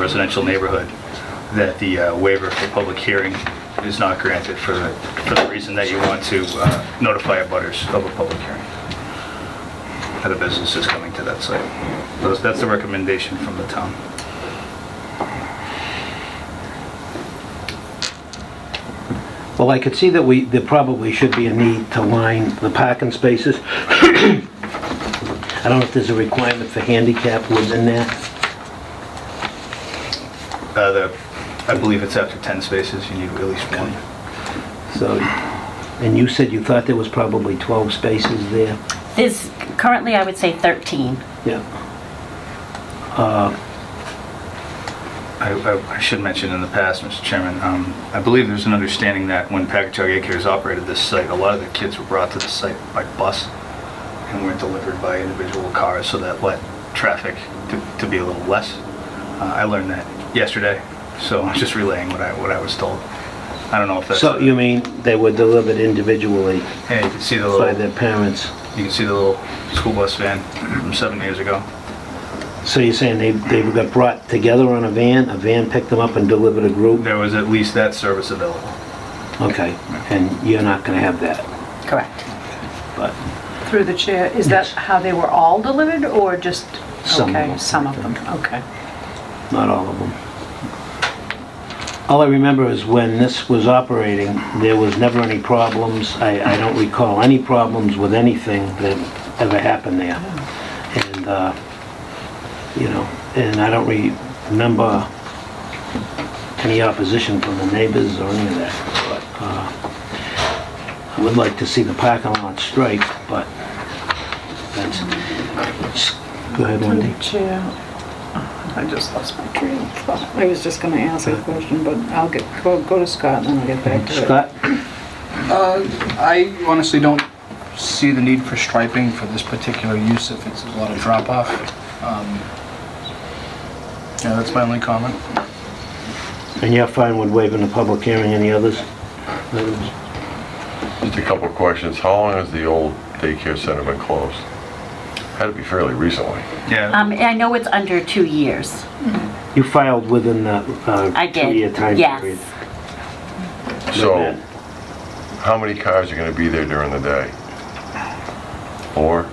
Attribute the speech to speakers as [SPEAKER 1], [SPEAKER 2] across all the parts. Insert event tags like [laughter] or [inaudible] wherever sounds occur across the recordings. [SPEAKER 1] residential neighborhood, that the uh, waiver for public hearing is not granted for the, for the reason that you want to uh, notify abutters of a public hearing. That a business is coming to that site. Those- That's the recommendation from the town.
[SPEAKER 2] Well, I could see that we, there probably should be a need to line the parking spaces. I don't know if there's a requirement for handicap within there.
[SPEAKER 1] Uh, the- I believe it's after 10 spaces, you need at least one.
[SPEAKER 2] So, and you said you thought there was probably 12 spaces there?
[SPEAKER 3] There's currently, I would say 13.
[SPEAKER 2] Yeah.
[SPEAKER 1] I- I I should mention in the past, Mr. Chairman, um, I believe there's an understanding that when Pagatuck Acres operated this site, a lot of the kids were brought to the site by bus and were delivered by individual cars, so that let traffic to- to be a little less. Uh, I learned that yesterday, so I'm just relaying what I what I was told. I don't know if that's...
[SPEAKER 2] So you mean they were delivered individually
[SPEAKER 1] Yeah, you can see the
[SPEAKER 2] by
[SPEAKER 1] little,
[SPEAKER 2] their parents?
[SPEAKER 1] you can see the little school bus van from seven years ago.
[SPEAKER 2] So you're saying they, they got brought together on a van, a van picked them up and delivered a group?
[SPEAKER 1] There was at least that service available.
[SPEAKER 2] Okay, and you're not gonna have that,
[SPEAKER 3] Correct.
[SPEAKER 2] but,
[SPEAKER 4] Through the chair, is that how they were all delivered, or just,
[SPEAKER 2] Some of
[SPEAKER 4] okay,
[SPEAKER 2] them.
[SPEAKER 4] some of them, okay.
[SPEAKER 2] not all of them. All I remember is when this was operating, there was never any problems. I, I don't recall any problems with anything that ever happened there. And, uh, you know, and I don't re- remember any opposition from the neighbors or any of that. But, uh, I would like to see the parking lot striped, but that's, go ahead,
[SPEAKER 4] Through
[SPEAKER 2] Wendy.
[SPEAKER 4] the chair, Oh, I just lost my train of thought. I was just gonna ask a question, but I'll get, go go to Scott, and then I'll get back to it.
[SPEAKER 2] Scott?
[SPEAKER 5] I honestly don't see the need for striping for this particular use if it's a lot of drop-off. Um, Yeah, that's my only comment.
[SPEAKER 2] And you're fine with waiving the public hearing, any others?
[SPEAKER 6] Just a couple of questions. How long has the old daycare center been closed? Had to be fairly recently.
[SPEAKER 1] Yeah,
[SPEAKER 3] Um, and I know it's under two years.
[SPEAKER 2] You filed within the
[SPEAKER 3] I
[SPEAKER 2] uh,
[SPEAKER 3] did.
[SPEAKER 2] two-year time
[SPEAKER 3] Yes.
[SPEAKER 2] period.
[SPEAKER 6] So how many cars are going to be there during the day? Four?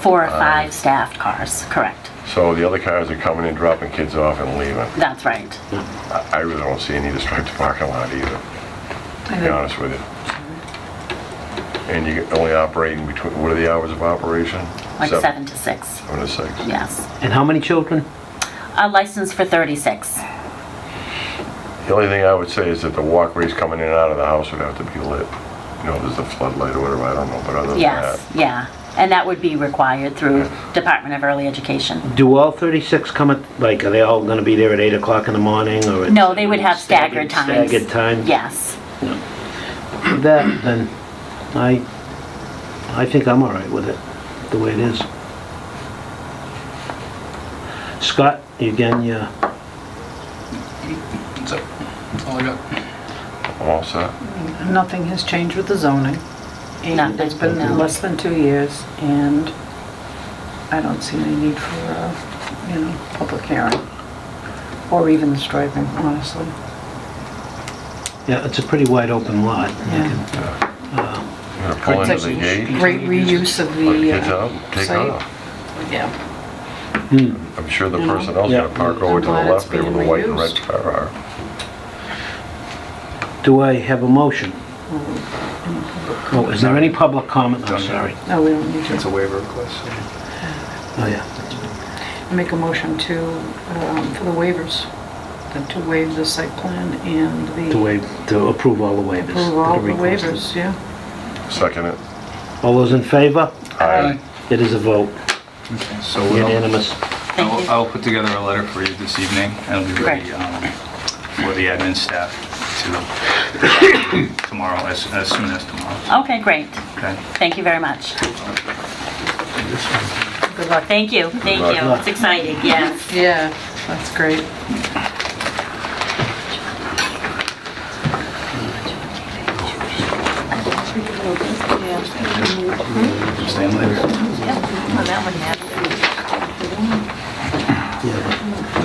[SPEAKER 3] Four
[SPEAKER 6] Uh,
[SPEAKER 3] or five staffed cars, correct.
[SPEAKER 6] So the other cars are coming in, dropping kids off and leaving.
[SPEAKER 3] That's right.
[SPEAKER 6] I I really don't see any to stripe the parking lot either, to be honest with you. And you only operating between, what are the hours of operation?
[SPEAKER 3] Like seven to six.
[SPEAKER 6] Seven to six.
[SPEAKER 3] Yes.
[SPEAKER 2] And how many children?
[SPEAKER 3] A license for 36.
[SPEAKER 6] The only thing I would say is that the walkways coming in and out of the house would have to be lit. You know, there's the floodlight or whatever, I don't know, but other than
[SPEAKER 3] Yes,
[SPEAKER 6] that.
[SPEAKER 3] yeah. And that would be required through Department of Early Education.
[SPEAKER 2] Do all 36 come at, like, are they all going to be there at 8 o'clock in the morning, or? at-
[SPEAKER 3] No, they would have staggered times.
[SPEAKER 2] Staggered times?
[SPEAKER 3] Yes.
[SPEAKER 2] That, then, I, I think I'm all right with it, the way it is. Scott, again, yeah,
[SPEAKER 5] That's it. That's all I got.
[SPEAKER 6] I'm all set.
[SPEAKER 4] Nothing has changed with the zoning, and
[SPEAKER 3] Nothing,
[SPEAKER 4] it's been
[SPEAKER 3] no.
[SPEAKER 4] less than two years, and I don't see any need for, uh, you know, public hearing, or even the striping, honestly.
[SPEAKER 2] yeah, it's a pretty wide open lot.
[SPEAKER 4] Yeah.
[SPEAKER 6] I'm gonna pull into the gate,
[SPEAKER 4] Great reuse of
[SPEAKER 6] let
[SPEAKER 4] the
[SPEAKER 6] kids
[SPEAKER 4] uh,
[SPEAKER 6] out, take
[SPEAKER 4] site.
[SPEAKER 6] off.
[SPEAKER 4] Yeah,
[SPEAKER 6] I'm sure the
[SPEAKER 4] You know?
[SPEAKER 6] personnel's
[SPEAKER 2] Yeah.
[SPEAKER 6] gonna park over to the
[SPEAKER 4] I'm glad it's
[SPEAKER 6] left there where the
[SPEAKER 4] being
[SPEAKER 6] white and red
[SPEAKER 4] reused.
[SPEAKER 6] car are.
[SPEAKER 2] Do I have a motion? Oh, is there any public comment? I'm sorry.
[SPEAKER 4] no, we don't need
[SPEAKER 1] it's a
[SPEAKER 4] to.
[SPEAKER 1] waiver request. so-
[SPEAKER 2] Oh, yeah.
[SPEAKER 4] Make a motion to, um, for the waivers, that to waive the site plan and the...
[SPEAKER 2] To waive, to approve all the waivers.
[SPEAKER 4] Approve all
[SPEAKER 2] that are
[SPEAKER 4] the
[SPEAKER 2] requested.
[SPEAKER 4] waivers, yeah.
[SPEAKER 6] Second it.
[SPEAKER 2] All those in favor?
[SPEAKER 6] Aye.
[SPEAKER 2] It is a vote,
[SPEAKER 1] So we'll-
[SPEAKER 2] unanimous.
[SPEAKER 3] Thank
[SPEAKER 1] I'll
[SPEAKER 3] you.
[SPEAKER 1] I'll put together a letter for you this evening, and it'll be ready
[SPEAKER 3] Great.
[SPEAKER 1] um, for the admin staff to, [coughs] tomorrow, as as soon as tomorrow,
[SPEAKER 3] Okay, great.
[SPEAKER 1] okay?
[SPEAKER 3] Thank you very much.
[SPEAKER 4] Good luck.
[SPEAKER 3] Thank you, thank
[SPEAKER 6] luck.
[SPEAKER 3] you. It's exciting, yes.
[SPEAKER 4] Yeah, that's great.
[SPEAKER 1] Staying later.
[SPEAKER 3] Yeah, well, that one happened.
[SPEAKER 2] Yeah,